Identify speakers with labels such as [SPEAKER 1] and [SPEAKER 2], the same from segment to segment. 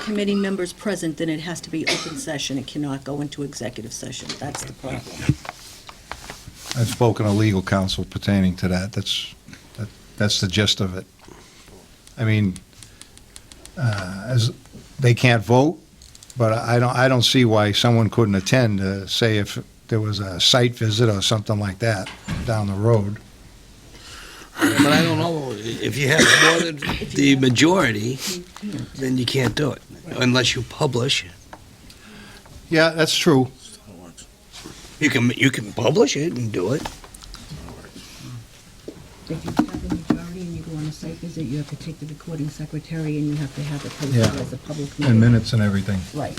[SPEAKER 1] committee members present, then it has to be open session. It cannot go into executive session. That's the problem.
[SPEAKER 2] I've spoken to legal counsel pertaining to that. That's, that- that's the gist of it. I mean, uh, as, they can't vote, but I don't, I don't see why someone couldn't attend, uh, say if there was a site visit or something like that down the road.
[SPEAKER 3] But I don't know, if you have more than the majority, then you can't do it, unless you publish.
[SPEAKER 2] Yeah, that's true.
[SPEAKER 3] You can, you can publish it and do it.
[SPEAKER 4] If you have the majority and you go on a site visit, you have to take the recording secretary and you have to have it posted
[SPEAKER 2] Yeah.
[SPEAKER 4] as a public meeting.
[SPEAKER 2] And minutes and everything.
[SPEAKER 4] Right.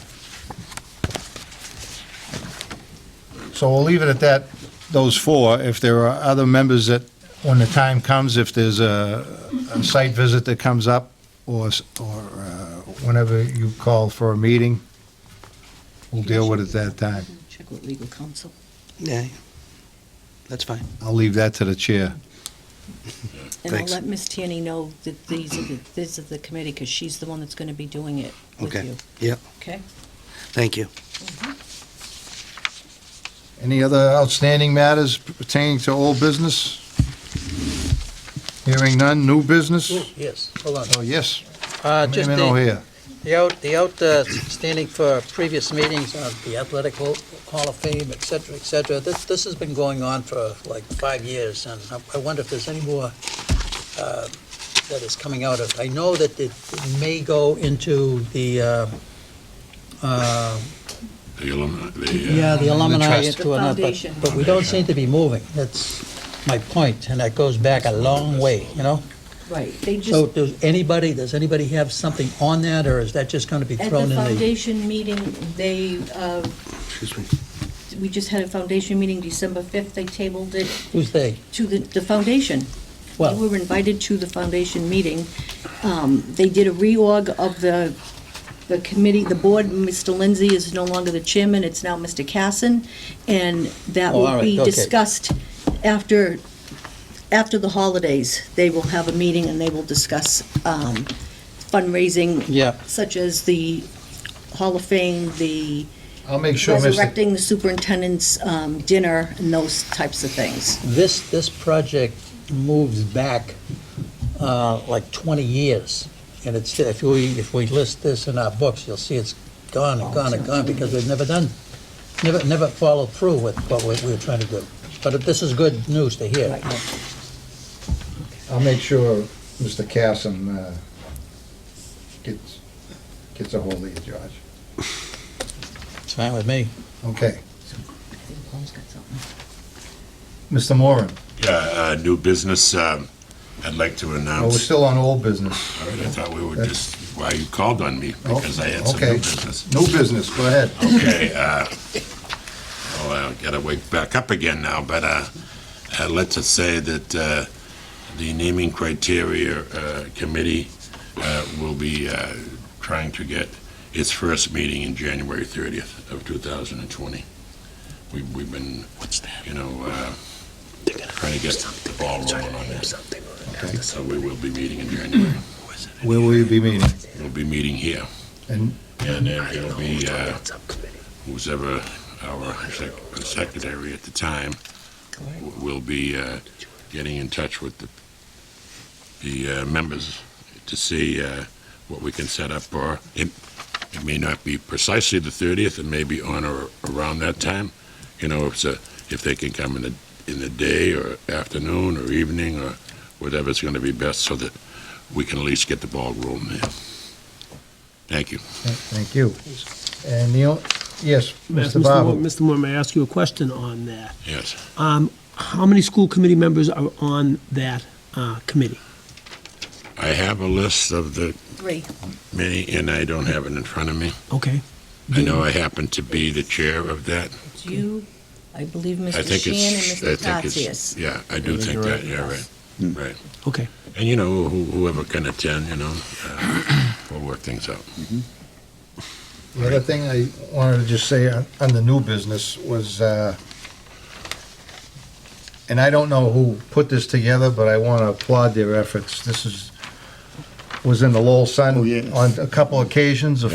[SPEAKER 2] So we'll leave it at that, those four. If there are other members that, when the time comes, if there's a, a site visit that comes up, or, s- or uh, whenever you call for a meeting, we'll deal with it that time.
[SPEAKER 1] Check with legal counsel.
[SPEAKER 3] Yeah, that's fine.
[SPEAKER 2] I'll leave that to the chair.
[SPEAKER 1] And I'll
[SPEAKER 3] Thanks.
[SPEAKER 1] let Ms. Tierney know that these are the, these are the committee, because she's the one that's going to be doing it with
[SPEAKER 3] Okay.
[SPEAKER 1] you.
[SPEAKER 3] Yep.
[SPEAKER 1] Okay?
[SPEAKER 3] Thank you.
[SPEAKER 2] Any other outstanding matters pertaining to old business? Hearing none, new business?
[SPEAKER 5] Mm, Yes, hold on.
[SPEAKER 2] Oh, yes,
[SPEAKER 5] Uh, Just
[SPEAKER 2] Commitment over
[SPEAKER 5] the
[SPEAKER 2] here.
[SPEAKER 5] the out, the outstanding for previous meetings of the Athletic Hall Hall of Fame, et cetera, et cetera. This, this has been going on for like five years, and I- I wonder if there's any more uh, that is coming out of. I know that it it may go into the, uh, uh,
[SPEAKER 6] The alumni, the, uh,
[SPEAKER 5] yeah, the alumni
[SPEAKER 3] trust.
[SPEAKER 5] into another. but-
[SPEAKER 1] foundation.
[SPEAKER 5] But we don't seem to be moving. That's my point, and that goes back a long way, you know?
[SPEAKER 1] Right. They
[SPEAKER 5] So
[SPEAKER 1] just,
[SPEAKER 5] does anybody, does anybody have something on that, or is that just going to be
[SPEAKER 1] at the
[SPEAKER 5] thrown in the?
[SPEAKER 1] foundation meeting, they, uh,
[SPEAKER 3] Excuse me.
[SPEAKER 1] we just had a foundation meeting December 5th. They tabled it
[SPEAKER 5] Who's they?
[SPEAKER 1] to the, the foundation. We
[SPEAKER 5] Well,
[SPEAKER 1] were invited to the foundation meeting. Um, They did a reorg of the, the committee, the board. Mr. Lindsay is no longer the chairman, it's now Mr. Casson, and that
[SPEAKER 5] Oh, all
[SPEAKER 1] will
[SPEAKER 5] right,
[SPEAKER 1] be
[SPEAKER 5] okay.
[SPEAKER 1] discussed after, after the holidays. They will have a meeting and they will discuss um, fundraising
[SPEAKER 5] yeah,
[SPEAKER 1] such as the Hall of Fame, the
[SPEAKER 2] I'll make sure, Mr.
[SPEAKER 1] resurrecting the superintendent's um, dinner, and those types of things.
[SPEAKER 5] this, this project moves back uh, like 20 years. And it's, if we, if we list this in our books, you'll see it's gone and gone and gone because we've never done, never, never followed through with what we we were trying to do. But this is good news to hear.
[SPEAKER 2] I'll make sure Mr. Casson uh, gets, gets a hold of you, George.
[SPEAKER 5] It's fine with me.
[SPEAKER 2] Okay.
[SPEAKER 4] I think Paul's got something.
[SPEAKER 2] Mr. Moran,
[SPEAKER 6] yeah, uh, new business, um, I'd like to
[SPEAKER 2] oh, we're
[SPEAKER 6] announce.
[SPEAKER 2] still on old business.
[SPEAKER 6] All right, I thought we were just, why you called on me,
[SPEAKER 2] Oh,
[SPEAKER 6] because I had some
[SPEAKER 2] okay.
[SPEAKER 6] new business.
[SPEAKER 2] New business, go ahead.
[SPEAKER 6] Okay, uh, well, I gotta wake back up again now, but, uh, uh, let's just say that, uh, the naming criteria, uh, committee, uh, will be, uh, trying to get its first meeting in January thirtieth of two thousand and twenty. We, we've been, you know, uh, trying to get the ball rolling on that. So we will be meeting in January.
[SPEAKER 2] Where will you be meeting?
[SPEAKER 6] We'll be meeting here.
[SPEAKER 2] And-
[SPEAKER 6] And then it'll be, uh, who's ever our sec- secretary at the time w- will be uh, getting in touch with the, the uh, members to see uh, what we can set up for. It it may not be precisely the 30th, it may be on or around that time. You know, if it's a, if they can come in the, in the day or afternoon or evening or whatever's going to be best so that we can at least get the ball rolling there. Thank you.
[SPEAKER 2] Thank you. And the, o- yes, Mr.
[SPEAKER 7] Moore,
[SPEAKER 2] Babu.
[SPEAKER 7] Mr. Moore, may I ask you a question on that?
[SPEAKER 6] Yes.
[SPEAKER 7] Um, How many school committee members are on that uh, committee?
[SPEAKER 6] I have a list of the
[SPEAKER 1] Three.
[SPEAKER 6] many, and I don't have it in front of me.
[SPEAKER 7] Okay.
[SPEAKER 6] I know I happen to be the chair of that.
[SPEAKER 1] It's you, I believe,
[SPEAKER 6] I
[SPEAKER 1] Mr.
[SPEAKER 6] think it's,
[SPEAKER 1] Sheehan
[SPEAKER 6] I
[SPEAKER 1] and Mr.
[SPEAKER 6] think
[SPEAKER 1] Tatsias.
[SPEAKER 6] it's, yeah, I do think that, yeah, right, right.
[SPEAKER 7] Okay.
[SPEAKER 6] And, you know, who- whoever can attend, you know, uh, we'll work things out.
[SPEAKER 2] The other thing I wanted to just say on on the new business was, uh, and I don't know who put this together, but I want to applaud their efforts. This is, was in the Lowell Sun on a couple occasions, a